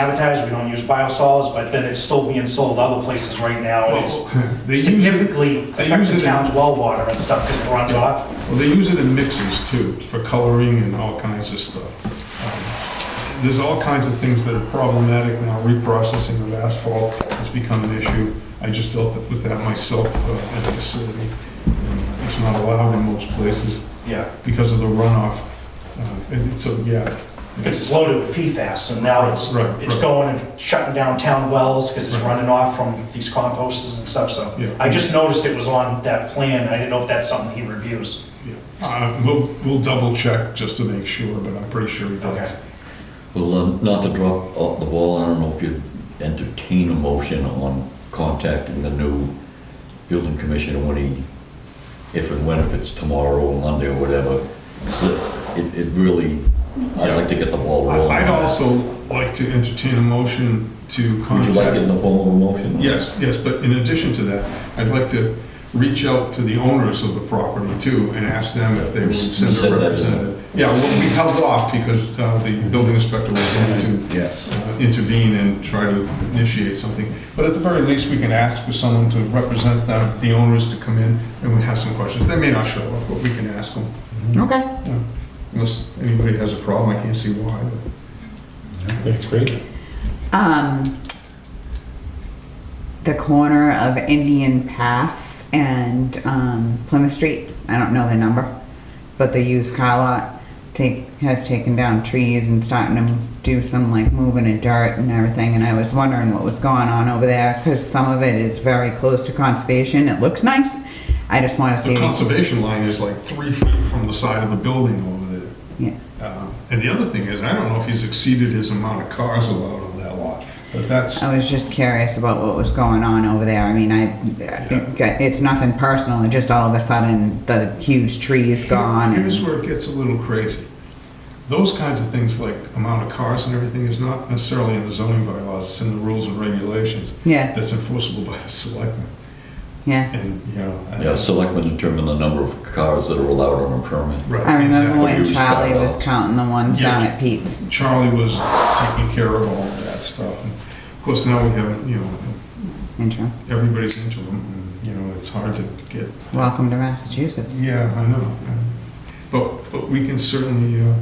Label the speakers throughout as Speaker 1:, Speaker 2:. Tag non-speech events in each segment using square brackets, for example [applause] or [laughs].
Speaker 1: advertised, we don't use biosolids, but then it's still being sold other places right now, and it's
Speaker 2: Well, [laughs] They use it,
Speaker 1: significantly
Speaker 2: they use
Speaker 1: affects the
Speaker 2: it in-
Speaker 1: town's well water and stuff because it runs off.
Speaker 2: well, they use it in mixes too, for coloring and all kinds of stuff. Um, There's all kinds of things that are problematic now, reprocessing of asphalt has become an issue. I just dealt with that myself uh, at the facility. It's not allowed in most places
Speaker 1: Yeah.
Speaker 2: because of the runoff. Uh, And it's, a- yeah.
Speaker 1: Because it's loaded with PFAS, and now it's,
Speaker 2: Right,
Speaker 1: it's
Speaker 2: right.
Speaker 1: going and shutting down town wells because it's
Speaker 2: Right.
Speaker 1: running off from these composters and stuff, so.
Speaker 2: Yeah.
Speaker 1: I just noticed it was on that plan, I didn't know if that's something he reviews.
Speaker 2: Yeah. Uh, We'll, we'll double check just to make sure, but I'm pretty sure he does.
Speaker 3: Well, um, not to drop off the ball, I don't know if you'd entertain a motion on contacting the new building commissioner when he, if and when, if it's tomorrow or Monday or whatever. 'Cause It, it- it really, I'd like to get the ball rolling.
Speaker 2: I'd also like to entertain a motion to
Speaker 3: Would you
Speaker 2: contact...
Speaker 3: like it in the form of a motion?
Speaker 2: Yes, yes, but in addition to that, I'd like to reach out to the owners of the property too and ask them if they would
Speaker 3: You said
Speaker 2: send a
Speaker 3: that, didn't you?
Speaker 2: representative. Yeah, well, we held off because uh, the building inspector was going to
Speaker 3: Yes.
Speaker 2: uh, intervene and try to initiate something. But at the very least, we can ask for someone to represent them, the owners to come in and we have some questions. They may not show up, but we can ask them.
Speaker 3: Okay.
Speaker 2: Unless anybody has a problem, I can't see why.
Speaker 4: That's great.
Speaker 5: Um, the corner of Indian Path and um, Plymouth Street. I don't know the number, but the used car lot take has taken down trees and starting to do some like moving of dirt and everything. And I was wondering what was going on over there because some of it is very close to conservation. It looks nice. I just want to see.
Speaker 2: The conservation line is like three feet from the side of the building over there.
Speaker 5: yeah.
Speaker 2: Um, And the other thing is, I don't know if he's exceeded his amount of cars allowed on that lot, but that's,
Speaker 5: I was just curious about what was going on over there. I mean, I, it's nothing personal. It's just all of a sudden the huge tree is gone.
Speaker 2: here's
Speaker 5: And,
Speaker 2: where it gets a little crazy. Those kinds of things like amount of cars and everything is not necessarily in the zoning bylaws, it's in the rules and regulations
Speaker 5: yeah,
Speaker 2: that's enforceable by the selectmen.
Speaker 5: yeah.
Speaker 2: And, you know. I-
Speaker 3: Yeah, selectmen determine the number of cars that are allowed on a permit.
Speaker 2: Right,
Speaker 5: I remember
Speaker 2: exactly.
Speaker 5: when
Speaker 3: Used
Speaker 5: Charlie
Speaker 3: car
Speaker 5: was
Speaker 3: lots.
Speaker 5: counting the ones
Speaker 2: Yeah.
Speaker 5: down at Pete's.
Speaker 2: Charlie was taking care of all of that stuff. And Of course, now we have, you know,
Speaker 5: Intro.
Speaker 2: everybody's into them, and, you know, it's hard to get
Speaker 5: Welcome to Massachusetts.
Speaker 2: Yeah, I know. But, but we can certainly, uh,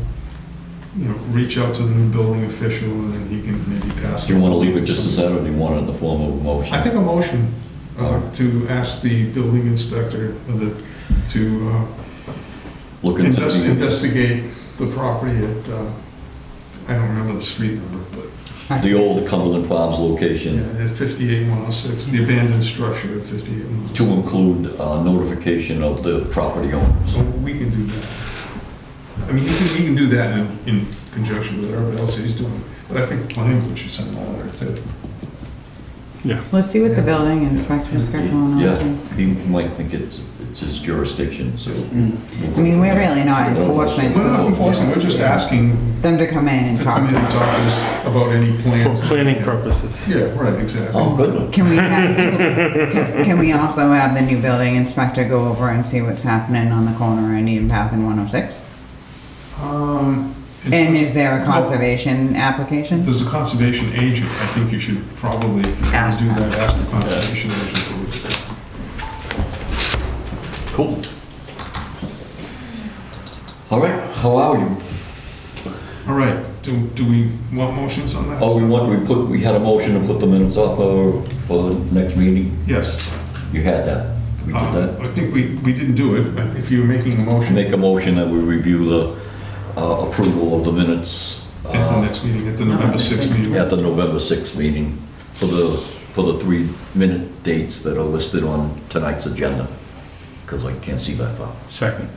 Speaker 2: you know, reach out to the new building official and then he can maybe pass.
Speaker 3: Do you want to leave it just as that, or do you want it in the form of a motion?
Speaker 2: I think a motion uh,
Speaker 3: Alright.
Speaker 2: to ask the building inspector of the, to uh,
Speaker 3: Look into
Speaker 2: invest-
Speaker 3: the-
Speaker 2: investigate the property at, uh, I don't remember the street number, but
Speaker 3: the old Cumberland Farms location.
Speaker 2: yeah, at 58106, the abandoned structure at 58106.
Speaker 3: to include uh, notification of the property owners.
Speaker 2: So we can do that. I mean, we can, we can do that in, in conjunction with everybody else he's doing, but I think the planning board should send a letter too.
Speaker 5: Let's see what the building inspector's got going
Speaker 3: Yeah,
Speaker 5: on.
Speaker 3: he might think it's, it's his jurisdiction, so.
Speaker 5: Mm-hmm. I mean, we're really not enforcement.
Speaker 2: We're not enforcing, we're just asking
Speaker 5: Them to come in
Speaker 3: Mm-hmm.
Speaker 5: and
Speaker 2: to come in
Speaker 5: talk.
Speaker 2: and talk to us about any
Speaker 4: For
Speaker 2: plans.
Speaker 4: planning purposes.
Speaker 2: Yeah, right, exactly.
Speaker 3: Oh, goodness.
Speaker 5: Can we, have,
Speaker 2: [laughs]
Speaker 5: can, can we also have the new building inspector go over and see what's happening on the corner of Indian Path and 106?
Speaker 2: Um, in
Speaker 5: And
Speaker 2: terms-
Speaker 5: is there a conservation application?
Speaker 2: There's a conservation agent, I think you should probably, if you
Speaker 5: Ask
Speaker 2: do
Speaker 5: them.
Speaker 2: that, ask the conservation agent. to look at that.
Speaker 3: Cool. All right, how are you?
Speaker 2: All right, do, do we want motions on that?
Speaker 3: Oh, we want, we put, we had a motion to put the minutes off for, for the next meeting.
Speaker 2: Yes.
Speaker 3: You had that. We did
Speaker 2: Uh,
Speaker 3: that.
Speaker 2: I think we, we didn't do it, but if you're making a motion at
Speaker 3: Make a motion that we review the uh, approval of the minutes
Speaker 2: the
Speaker 3: uh,
Speaker 2: next meeting, at the November 6th meeting.
Speaker 3: at the November 6th meeting for the, for the three-minute dates that are listed on tonight's agenda, because I can't see that far.
Speaker 4: Second.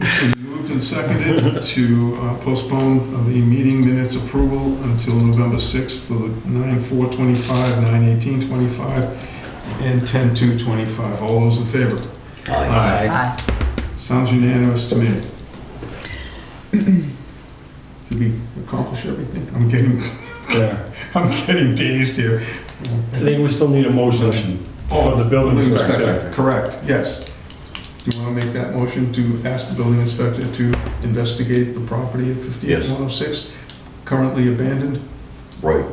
Speaker 2: It's been Moved and seconded to uh, postpone the meeting minutes approval until November 6th for the 9/4/25, 9/18/25, and 10/2/25. All those in favor? Aye.
Speaker 5: Aye.
Speaker 2: Sounds unanimous to me. [clears throat] Did we accomplish everything? I'm getting,
Speaker 4: Yeah.
Speaker 2: [laughs] I'm getting dazed here.
Speaker 4: I think we still need a motion for the building inspector.
Speaker 2: Correct, yes. Do you want to make that motion to ask the building inspector to investigate the property at
Speaker 3: Yes.
Speaker 2: 58106, currently abandoned?
Speaker 3: Right,